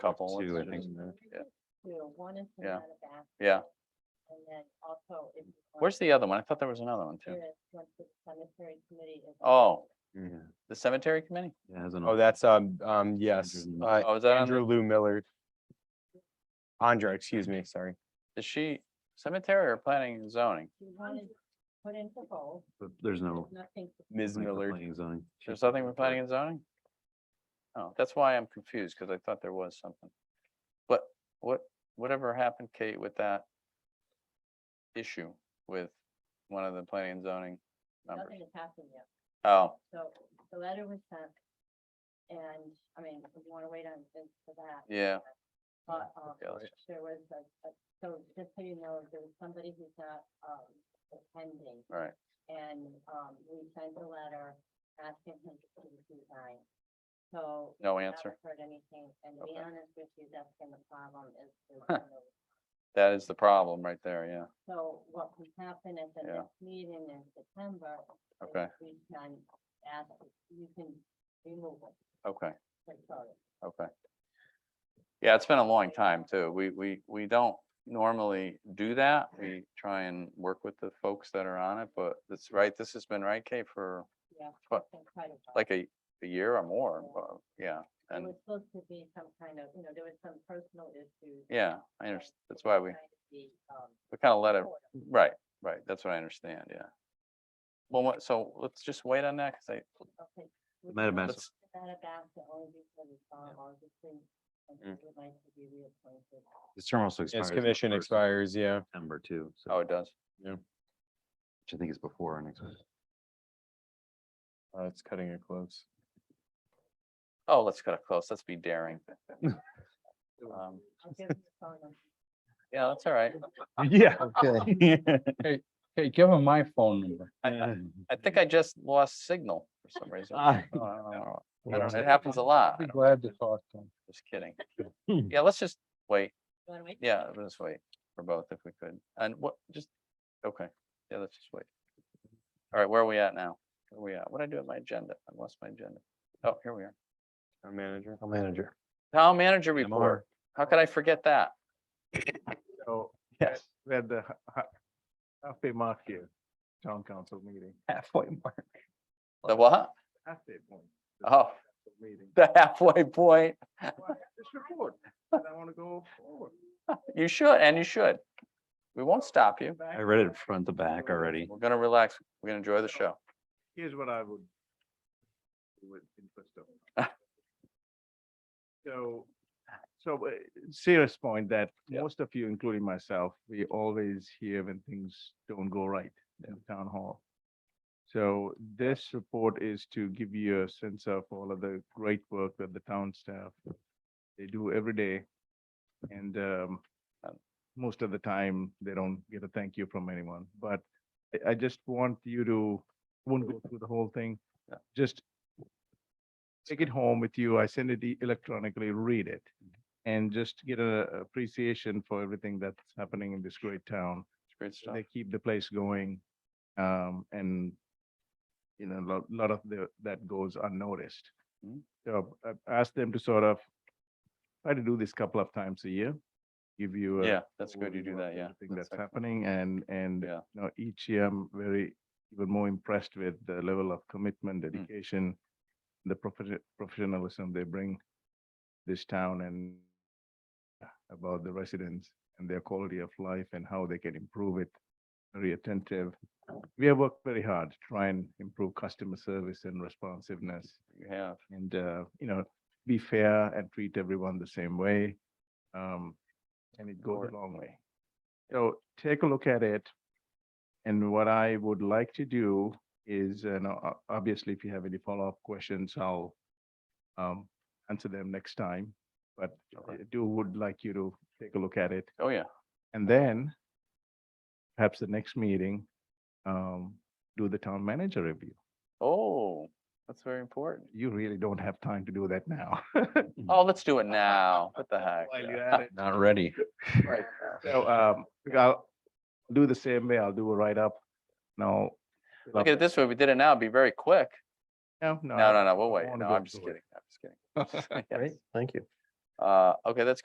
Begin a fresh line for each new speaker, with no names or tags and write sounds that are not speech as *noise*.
couple.
Two, I
it's
think.
just-
Two, one is the
Yeah.
amount of baskets,
Yeah,
And then also. if you want
where's the other one? I thought there was another one
to
too.
Once the cemetery committee is.
Oh,
Yeah,
the cemetery committee?
it has an.
Oh, that's, um, um, yes,
Andrew
uh,
Oh, is that on, the-
Andrew Lou Millard. Andra, excuse me, sorry.
is she cemetery or planning and zoning?
If you want to put in for both,
But there's
Oh.
no.
there's nothing. to-
Ms.
like, the
Millard.
planning zone.
There's nothing we're planning and zoning? Oh, that's why I'm confused, because I thought there was something. But what, whatever happened, Kate, with that issue with one of the planning and zoning members?
Nothing has happened yet.
Oh,
So the letter was sent. And I mean, if you want to wait on this for that.
yeah,
But um,
Yeah, let's
there was a, a- so just so you know, there was somebody who's not um, attending.
right.
And um, we sent a letter asking him to please resign. So.
No
we
answer.
haven't Heard anything, and to be
Okay.
honest with you, that's been the problem
*laughs*
is. there's
Huh.
no-
That is the problem right there, yeah.
So what can happen at the
Yeah.
next meeting in September. is
Okay,
We can ask, you can remove it.
okay,
for sure.
okay. Yeah, it's been a long time too. We, we, we don't normally do that. We try and work with the folks that are on it, but that's right, this has been right, Kate, for
Yeah.
But,
it's been quite a while.
like a, a year or more,
Yeah.
but, yeah,
It
and,
was supposed to be some kind of, you know, there was some personal issues.
yeah, I
and
understand,
it
that's
was
why we,
trying to be, um,
we kind of let it,
supportive.
right, right, that's what I understand, yeah. Well, what, so let's just wait on that, because I,
Okay. we
Madam
can
Mayor.
put That about the only because it's on August thing, and
Mm.
we would like to be reappointed.
His term also expires.
His
on
commission
1st of
expires, yeah.
September too, so,
oh,
which
it does,
I think is before our next one.
Uh, it's cutting it close.
oh, let's cut it close, let's be daring. Um,
I'll give you the phone number.
Yeah, that's all right,
*laughs* Yeah.
Oh,
Okay.
*laughs* Hey, give him my phone number.
I- I think I just lost signal for some reason.
Ah.
*laughs* Oh, I don't know. I
I'll
don't- It happens a lot,
Be glad to talk to him.
just kidding. Yeah, let's just wait,
You wanna wait?
yeah, let's wait for both if we could, and what, just, okay, yeah, let's just wait. All right, where are we at now? Where are we at? What did I do with my agenda? I lost my agenda. Oh, here we are.
Our manager.
Manager.
Town manager
MR.
report. How could I forget that?
So
Yes.
we had the ha- ha- halfway mark here, town council meeting,
Halfway mark.
The what?
halfway point. the
Oh, *laughs*
council Meeting.
the halfway point.
Why, This report, and I want to go forward.
You should, and you should. We won't stop you.
back
I
to
read it
back.
front to back already.
We're gonna relax. We're gonna enjoy the show.
Here's what I would. do With interest of. So, so uh, serious point that
Yeah.
most of you, including myself, we always hear when things don't go right in town hall. So this report is to give you a sense of all of the great work that the town staff, they do every day. And um,
Um.
most of the time, they don't get a thank you from anyone, but I- I just want you to, won't go through the whole thing.
Yeah.
Just take it home with you. I send it e- electronically, read it
Mm-hmm.
and just get a a appreciation for everything that's happening in this great town.
It's great stuff.
They keep the place going. Um, and you know, a lot, lot of the, that goes unnoticed.
Mm.
So I asked them to sort of try to do this couple of times a year, give you. a
Yeah, that's good. You uh,
overview
do
of
that, yeah.
everything that's
excellent.
happening and, and,
Yeah.
you know, each year I'm very, even more impressed with the level of commitment,
Hmm.
dedication, the profession, professionalism they bring this town and about the residents and their quality of life and how they can improve it. Very attentive. We have worked very hard to try and improve customer service and responsiveness
You have.
and, uh, you know, be fair and treat everyone the same way. Um, and it goes
Or-
a long way. So take a look at it. And what I would like to do is, and o- obviously if you have any follow-up questions, I'll um, answer them next time. But I
Okay.
do would like you to take a look at it.
Oh, yeah.
And then perhaps the next meeting, um, do the town manager review.
Oh, that's very important.
You really don't have time to do that now. *laughs* Hmm.
Oh, let's do it now. What the heck?
While
yeah.
you're at it.
Not ready.
*laughs* Right. So, um, I'll do the same way. I'll do a write-up. No. fill
Look
up
at it this way. We did it now. It'd be very quick.
No,
No, no, no, we'll
I
wait.
wanna
No,
go
I'm just
through *laughs*
kidding. *laughs* I'm just kidding. Yes.
Thank you.
Uh, okay, that's